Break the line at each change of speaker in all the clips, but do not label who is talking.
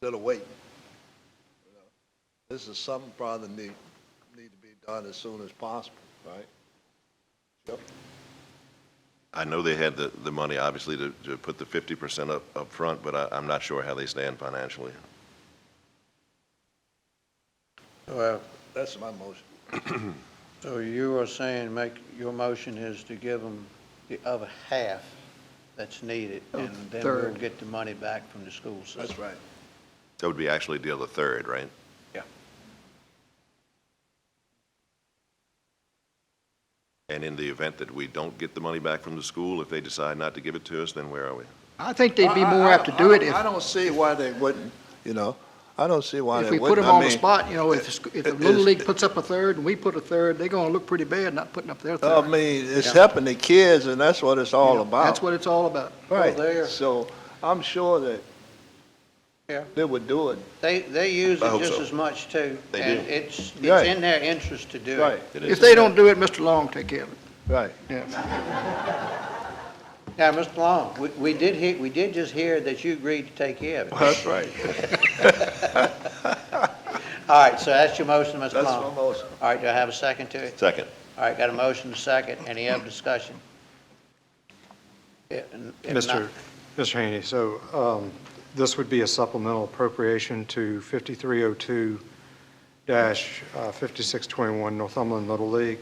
still waiting. you know. This is something probably need, need to be done as soon as possible, right? Yep.
I know they had the, the money, obviously, to, to put the fifty percent up, up front, but I, I'm not sure how they stand financially.
Well,
That's my motion.
so you are saying make, your motion is to give them the other half that's needed,
Oh,
and then we'll
third.
get the money back from the school system.
That's right.
That would be actually deal the third, right?
Yeah.
And in the event that we don't get the money back from the school, if they decide not to give it to us, then where are we?
I think they'd be
I- I-
more
I
apt to
don't-
do
I
it
don't-
if,
I don't see why they wouldn't, you know? I don't see why
if
they
we put
wouldn't.
them
I
on the
mean,
spot, you know, if, the sc- if the
it-
Little
it's-
League puts up a third and we put a third, they're gonna look pretty bad not putting up their
Oh, I
third.
mean, it's
Yeah.
helping the kids, and that's what it's all
You know,
about.
That's what it's all about.
Right,
there.
so I'm sure that
Yeah.
they would do it.
They, they use
I
it
hope
just
so.
as much too.
They
And
do.
it's,
Right.
it's in their interest to do it.
Right,
It
If
is-
they don't do it, Mr. Long take care of it,
right.
yeah.
Now, Mr. Long, we, we did hear, we did just hear that you agreed to take care of it.
That's right.
All right, so that's your motion, Mr.
That's
Long.
my motion.
All right, do I have a second to it?
Second.
All right, got a motion, a second, any other discussion? If- if not-
Mr. Mr. Haney, so um, this would be a supplemental appropriation to 5302-5621 uh, Northumberland Little League,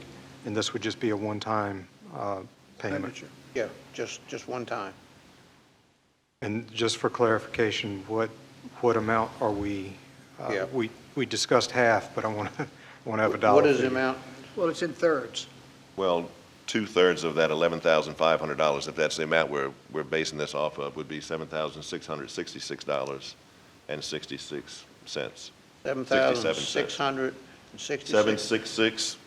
and this would just be a one-time uh, payment.
Yeah, just, just one time.
And just for clarification, what, what amount are we? uh,
Yeah.
We, we discussed half, but I want to, want to have a dollar.
What is the
figure.
amount?
Well, it's in thirds.
Well, two-thirds of that eleven thousand five hundred dollars, if that's the amount we're, we're basing this off of, would be seven thousand six hundred sixty-six dollars and sixty-six cents.
Seven thousand
67
six
cents.
hundred and
Seven,
sixty-six.
six, six,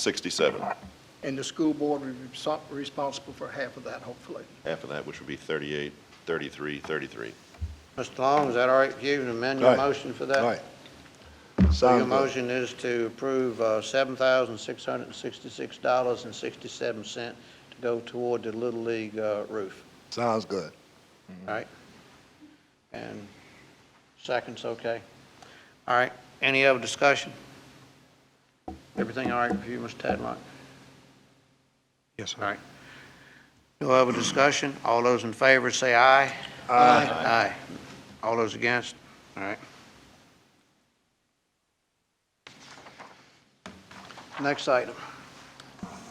sixty-seven.
And the school board would be so- responsible for half of that, hopefully.
Half of that, which would be thirty-eight, thirty-three, thirty-three.
Mr. Long, is that all right with you, to amend your
Right.
motion for that?
Right.
So
Sounds
your
good.
motion is to approve uh, $7,666.67 to go toward the Little League uh, roof,
Sounds good. Mm-hmm.
all right? And second's okay. All right, any other discussion? Everything all right with you, Mr. Tadlock?
Yes, sir.
All right. No other discussion? All those in favor say aye. Aye. Aye. All those against? All right. Next item.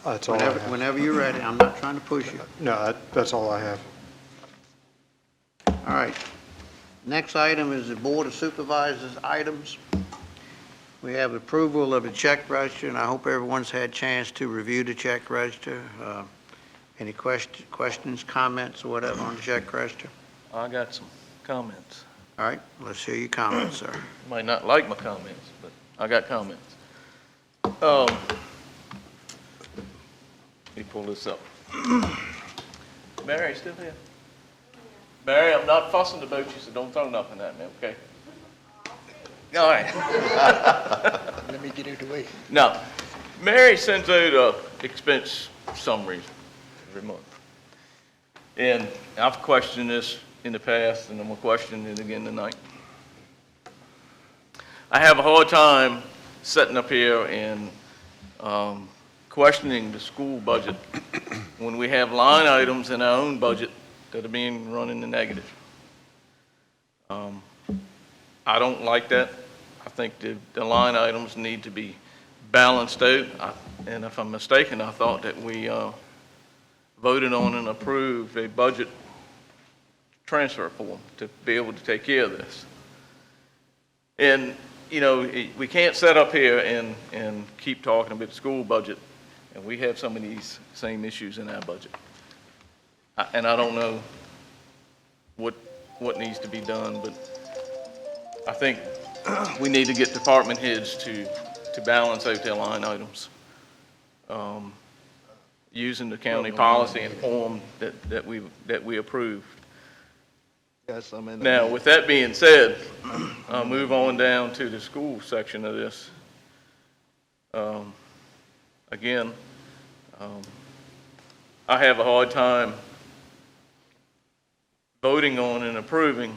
That's all I
Whenever,
have.
whenever you're ready. I'm not trying to push you.
No, that- that's all I have.
All right. Next item is the Board of Supervisors items. We have approval of the check register, and I hope everyone's had a chance to review the check register. Uh, Any quest- questions, comments, or whatever on the check register?
I got some comments.
All right, let's hear your comments, sir.
You might not like my comments, but I got comments. Um, Let me pull this up. Barry, you still here? Barry, I'm not fussing about you, so don't throw nothing at me, okay? All right.
Let me get it away.
Now, Mary sends out uh, expense summaries every month. And I've questioned this in the past, and I'm gonna question it again tonight. I have a hard time sitting up here and um, questioning the school budget when we have line items in our own budget that are being run in the negative. Um, I don't like that. I think the, the line items need to be balanced out. I- And if I'm mistaken, I thought that we uh, voted on and approved a budget transfer form to be able to take care of this. And, you know, it- we can't sit up here and, and keep talking about the school budget, and we have some of these same issues in our budget. I- And I don't know what, what needs to be done, but I think we need to get department heads to, to balance out their line items. Um, Using the county policy and form that, that we, that we approved.
Yes, I'm in.
Now, with that being said, I'll move on down to the school section of this. Um, Again, um, I have a hard time voting on and approving